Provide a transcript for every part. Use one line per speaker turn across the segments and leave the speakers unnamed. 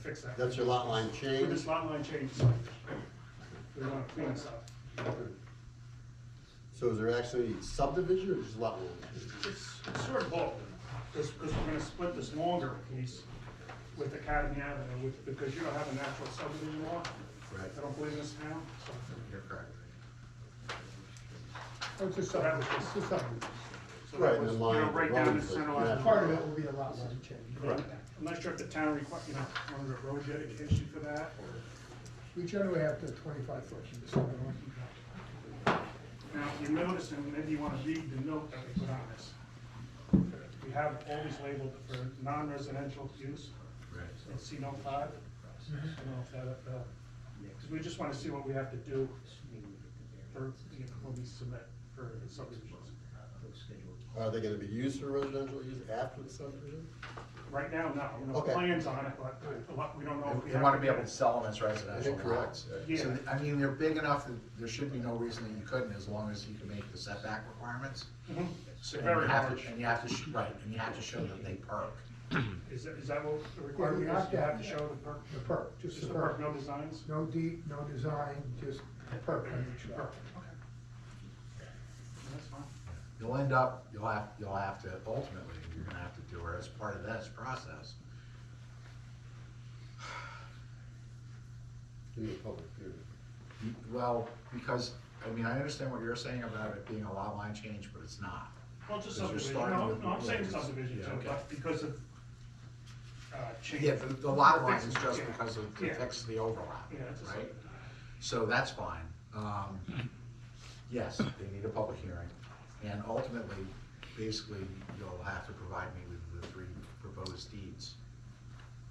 fix that.
That's your lot line
For
change.
this lot line change, it's like, we want to clean stuff.
So is there actually subdivision or just lot line? change?
It's it's sort of both, because, we're gonna split this longer piece with Academy Avenue, with- because you don't have a natural subdivision law.
Right.
I don't believe in this now, so-
You're correct.
Oh, It's just
So that was
something,
just-
it's just something.
so
Right,
that
and
was, you
the
know,
line,
right down
the
the center
roads,
line.
yeah.
Part of it will be a lot line change.
Right. I'm not sure if the town require, you know, under the road dedication for that, or,
We generally have to twenty-five foot from the center line.
now, you notice, and maybe you wanna read the note that we put on this. We have always labeled for non-residential use,
Right.
and C note five. I don't know if that, uh, because we just want to see what we have to do for, you know, when we submit for subdivisions.
Are they gonna be used for residential use after the subdivision?
Right now, no, no
Okay.
plans on it, but a lot, we don't know. if we
They
have
wanna be able to sell them as residential
Correct.
lots.
Yeah.
So, I mean, they're big enough that there should be no reason that you couldn't, as long as you can make the setback requirements.
Mhm.
So
They're
and you
very
have to-
large.
And you have to, sh- right, and you have to show that they perk.
Is that, is that what the requirement is? You have to show the perk,
The perk, just
just
the
the perk,
perk.
no designs?
No deep, no design, just the perk on each
Perk,
lot.
okay. That's fine.
You'll end up, you'll have, you'll have to, ultimately, you're gonna have to do, or as part of this process,
You need a public hearing.
you- well, because, I mean, I understand what you're saying about it being a lot line change, but it's not.
Well, just
Because you're
subdivision,
starting
no,
with-
no, I'm saying
yeah,
subdivision
yeah,
too,
okay.
but because of, uh, change.
Yeah, the, the lot line
lines
is just because of,
Yeah.
it fixes the overlap,
Yeah, it's a
right?
subdivision.
So that's fine. Um, yes, they need a public hearing. And ultimately, basically, you'll have to provide me with the three proposed deeds.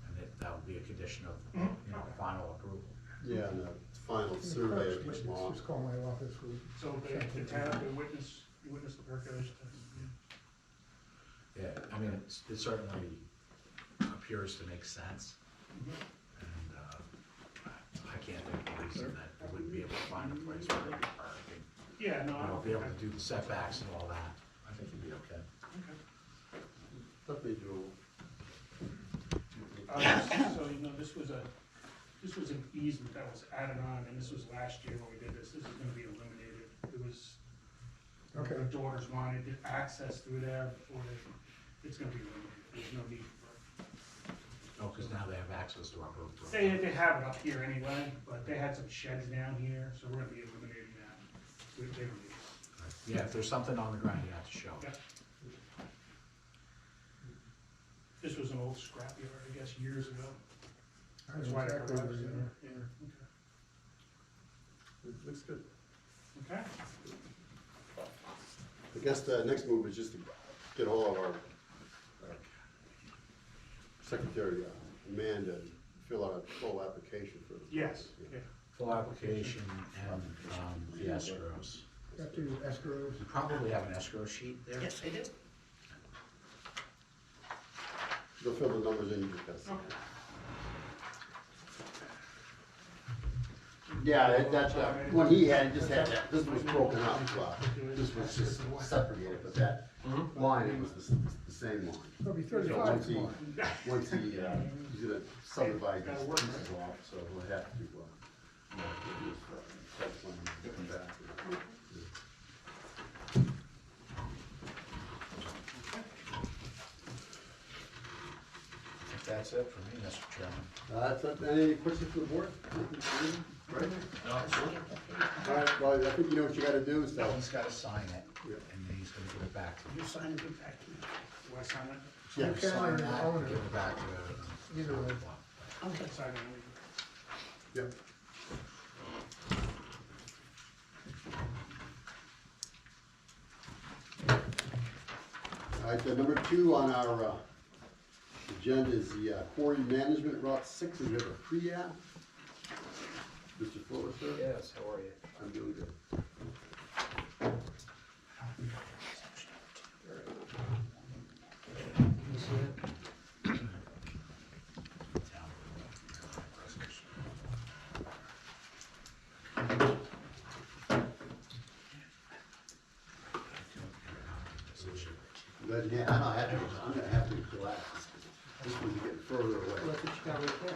And that, that would be a condition of, you know, final approval.
Yeah, and the final
And the
survey
perk's
of each
witness,
lot.
Just call my office. we'll
So
check
the, the
it.
town, the witness, you witness the percolation. uh, yeah.
Yeah, I mean, it's, it certainly appears to make sense. And, uh, I- I can't think of a reason that we wouldn't be able to find a place where it'd be parking.
Yeah, no, I
You know,
don't
be
think
able
I,
to do the setbacks and all that. I think you'd be okay.
okay.
That'd be doable.
Uh, just So, you know, this was a, this was an easement that was added on, and this was last year when we did this, this is gonna be eliminated. It was,
Okay.
the daughters wanted access through there before they, it's gonna be eliminated, there's no need for it.
Oh, because now they have access to our road.
They, they have it up here anyway, but they had some sheds down here, so we're gonna be eliminating that. We- they don't need it.
Yeah, if there's something on the ground, you have to show.
Yeah. This was an old scrapyard, I guess, years ago.
I
That's
know
why the
exactly
garage
where
is
they
in
are.
there. Yeah,
It Looks good.
okay. Okay?
I guess the next move is just to get all of our uh, secretary, uh, Amanda, to fill out a full application for. the-
Yes, yeah.
Yeah.
Full application and, um, the escrows.
Got to escrows.
You probably have an escrow sheet there.
Yes, I do.
They'll fill the numbers in you discussed.
Okay.
Yeah, that- that's, uh, when he had, it just had that, this was broken up, uh, this was just separated, but that line, it was the, s- the same line.
It'll be
So
thirty-five
once he,
tomorrow.
once he, uh, he's gonna subdivide these pieces off, so we'll have to, uh, you know, do this, uh, site plan and come back.
I think That's it for me, Mr. Chairman.
Uh, that's, it. any questions for the board? Right? All right, well, I think you know what you gotta do, so.
He's gotta sign it,
Yeah.
and then he's gonna give it back to you.
You sign and give back to me.
Do I sign it?
Yeah,
You can
Sign
or
that,
own
and give
it.
it back to the.
Either way.
Okay.
Sign it.
Yep. All right, then number two on our, uh, agenda is the uh, quarry management route six, we have a pre-app. Mr. Fuller, sir?
Yes, how are you?
I'm doing good. But yeah, I'm not happy, I'm gonna have to collapse. This one's getting further away.
Look what you got right there.